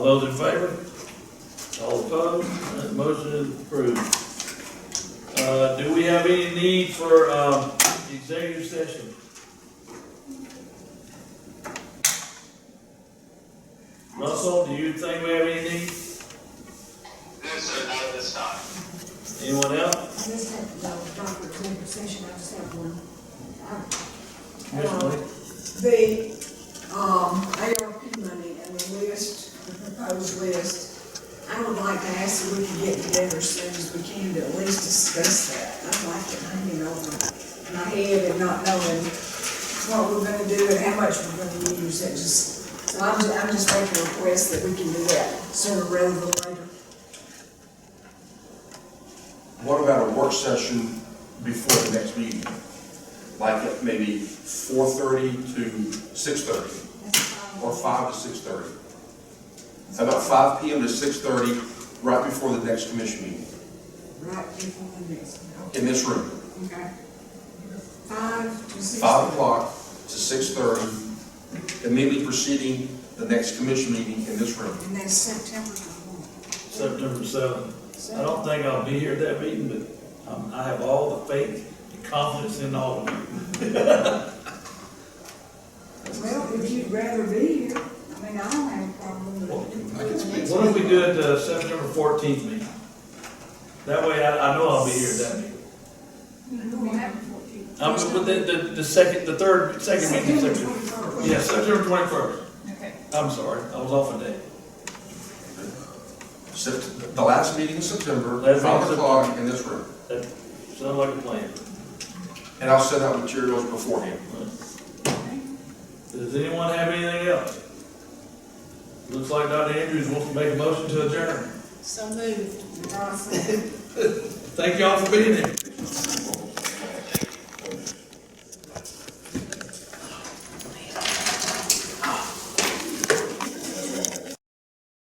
All those in favor? All opposed? That motion is approved. Uh, do we have any need for, um, executive session? Russell, do you think we have any need? No, sir, not at this time. Anyone else? I just had, uh, Dr. Executive Session, I just have one. Ms. Um, Lee? The, um, ARP money and the list, the proposed list, I would like to ask if we can get together as soon as we can to at least discuss that. I'd like to hang it over my head and not knowing what we're gonna do and how much we're gonna use, it just, so I'm, ju- I'm just making a request that we can do that sooner rather than later. What about a work session before the next meeting? Like at maybe four thirty to six thirty, or five to six thirty? About five P M to six thirty, right before the next commission meeting, Right before the next, one. in this room. Okay. Five to six. Five o'clock to six thirty, immediately preceding the next commission meeting in this room. And then September the September seventh. one. I don't think I'll be here at that meeting, but, um, I have all the faith and confidence in all of you. Well, if you'd rather be here, I mean, I don't have a problem with it. I can speak. What if we do it uh, September fourteenth meeting? That way I, I know I'll be here at that meeting. Um, but the, the, the second, the third, second meeting, September September, twenty-first. yeah, September twenty-first. Okay. I'm sorry, I was off a day. Sept- The last meeting in September, Last meeting in five o'clock September. in this room. That sounds like a plan. And I'll send out materials beforehand. Does anyone have anything else? Looks like Dr. Andrews wants to make a motion to adjourn. So moved. Awesome. Thank y'all for being here.